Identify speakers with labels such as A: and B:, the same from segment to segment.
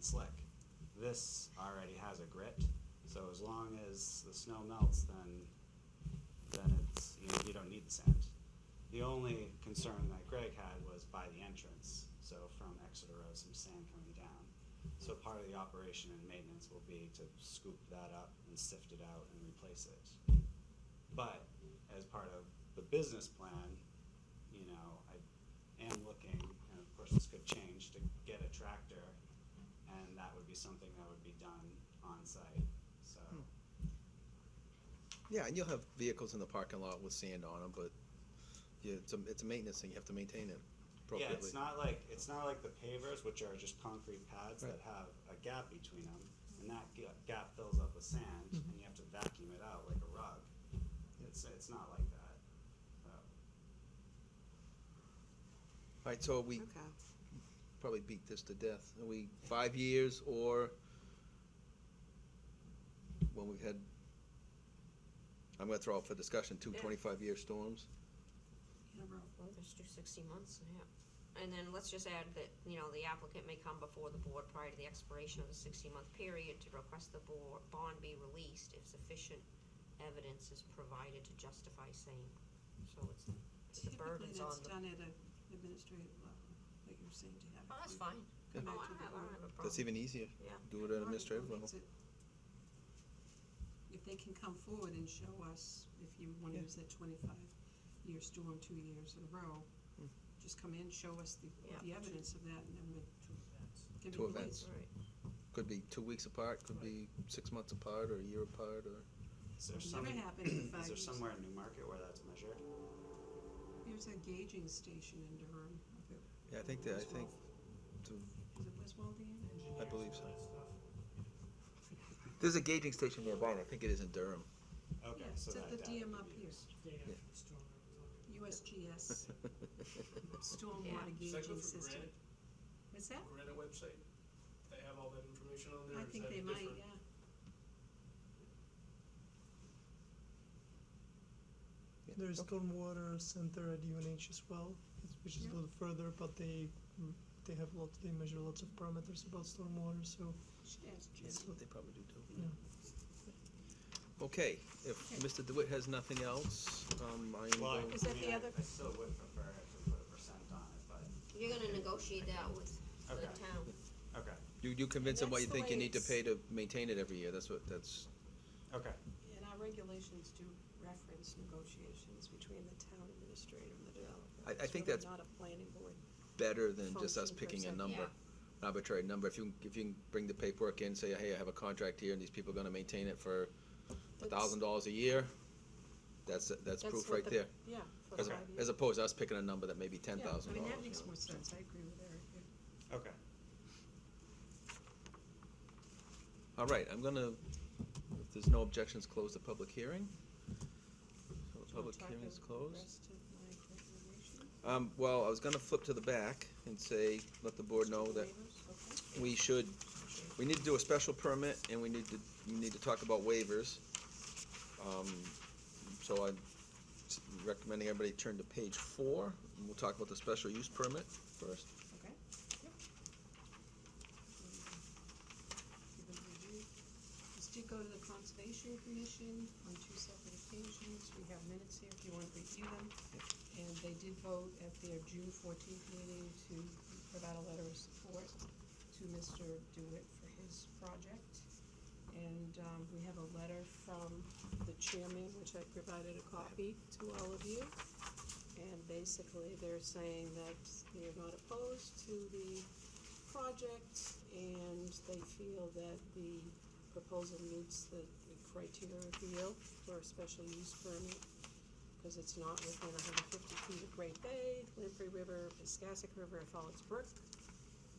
A: slick. This already has a grit, so as long as the snow melts, then, then it's, you know, you don't need the sand. The only concern that Greg had was by the entrance, so from Exeter Road, some sand coming down. So part of the operation and maintenance will be to scoop that up and sift it out and replace it. But as part of the business plan, you know, I am looking, and of course this could change, to get a tractor, and that would be something that would be done on site. so.
B: Yeah, and you'll have vehicles in the parking lot with sand on them, but yeah, it's a, it's a maintenance thing, you have to maintain it
A: Yeah,
B: appropriately.
A: it's not like, it's not like the pavers, which are just concrete pads that have a gap between them, and that ga- gap fills up with sand, and you have to vacuum it out like a rug. It's, it's not like that, so.
B: Alright, so we
C: Okay.
B: probably beat this to death, are we five years or when we've had, I'm gonna throw out for discussion, two
D: Yeah.
B: twenty-five year storms?
D: Well, just do sixty months, yeah. And then let's just add that, you know, the applicant may come before the board prior to the expiration of the sixty-month period to request the board, bond be released if sufficient evidence is provided to justify same. So it's, it's the
C: Typically,
D: burden's on
C: that's
D: the.
C: done at an administrative level, like you were saying to have.
D: Oh, that's fine.
C: Come
D: Oh,
C: back to
D: I
C: the
D: don't have, I don't
C: board.
D: have a
B: That's even
D: problem.
B: easier,
D: Yeah.
B: do it at administrative level.
C: If they can come forward and show us, if you wanna
B: Yeah.
C: use that twenty-five year storm two years in a row, just come in, show us the,
D: Yeah.
C: the evidence of that, and then we can
B: Two
C: release.
B: events.
D: Right.
B: Could be two weeks apart, could be six months apart or a year apart or.
A: Is there some,
C: Never happened in five
A: is there
C: years.
A: somewhere in Newmarket where that's measured?
C: There's a gauging station in Durham. up at
B: Yeah, I think that, I
C: West
B: think,
C: Wal-
B: to-
C: Is it West Walden?
B: I believe so. There's a gauging station nearby, and I think it is in Durham.
A: Okay,
C: Yeah,
A: so
C: it's
A: that
C: at the
A: data
C: DM
A: could
C: up
A: be
C: here.
A: used.
C: USGS,
D: Yeah.
C: stormwater
E: Does that go
C: gauging
E: through
C: system. What's that?
E: Granite, Granite website? They have all that information on there?
C: I
E: or is
C: think
E: that
C: they might,
E: different?
C: yeah.
F: There's stormwater center at UNH as well, it's- which is a
C: Yeah.
F: little further, but they, they have lots, they measure lots of parameters about stormwater, so.
C: Should ask Jim.
B: That's what they probably do too.
F: Yeah.
B: Okay, if Mr. DeWitt has nothing else, um, I am
A: Well, I,
B: going,
C: Is that
A: I mean,
C: the
A: I-
C: other-
A: I still would prefer if we put a percent on it, but,
D: You're gonna negotiate that with the
A: Okay.
D: town.
A: okay,
B: you, you convince them what you
C: That's the
B: think you
C: way
B: need to
C: it's-
B: pay to maintain it every year, that's what, that's,
A: okay,
C: And our regulations do reference negotiations between the town administrator and the developer.
B: I- I
C: It's
B: think
C: really
B: that's-
C: Not a planning board.
B: better than just us
C: Function
B: picking a
C: percent.
B: number.
D: Yeah.
B: an Arbitrary number, if you, can- if you can bring the paperwork in, say, hey, I have a contract here, and these people are gonna maintain it for a
C: That's-
B: thousand dollars a year, that's, that's
D: That's
B: proof
D: what
B: right
D: the-
B: there.
C: Yeah. for
B: As,
C: five years.
B: as opposed to us picking a number that may be ten
C: Yeah,
B: thousand
C: I mean,
B: dollars.
C: that makes more sense, I agree with Eric. yeah.
A: okay.
B: All right, I'm gonna, if there's no objections, close the public hearing. So the
C: Do you wanna
B: public
C: talk
B: hearing is
C: about the
B: closed.
C: rest of my recommendation?
B: Um, well, I was gonna flip to the back and say, let the board know that
C: Waivers, okay.
B: we should, we need to do a special permit and we need to, we need to talk about waivers. Um, so I'm s- recommending everybody turn to page four, and we'll talk about the special use permit first.
C: Okay. Give it a review. This did go to the Conservation Commission on two separate occasions. We have minutes here if you want to review them. And they did vote at their June fourteenth meeting to provide a letter of support to Mr. Dewitt for his project. And, um, we have a letter from the chairman, which I provided a copy to all of you. And basically, they're saying that they're not opposed to the project and they feel that the proposal meets the the criteria of the yield for a special use permit. Because it's not within hundred fifty feet of Great Bay, Lamprey River, Piscassic River, or Falls Brook.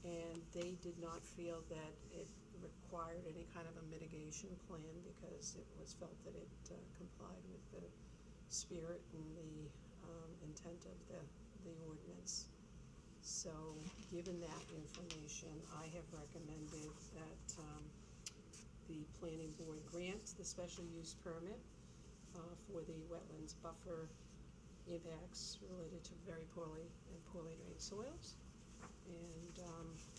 C: And they did not feel that it required any kind of a mitigation plan because it was felt that it uh, complied with the spirit and the um, intent of the, the ordinance. So, given that information, I have recommended that um, the planning board grant the special use permit uh, for the wetlands buffer impacts related to very poorly and poorly drained soils. And um,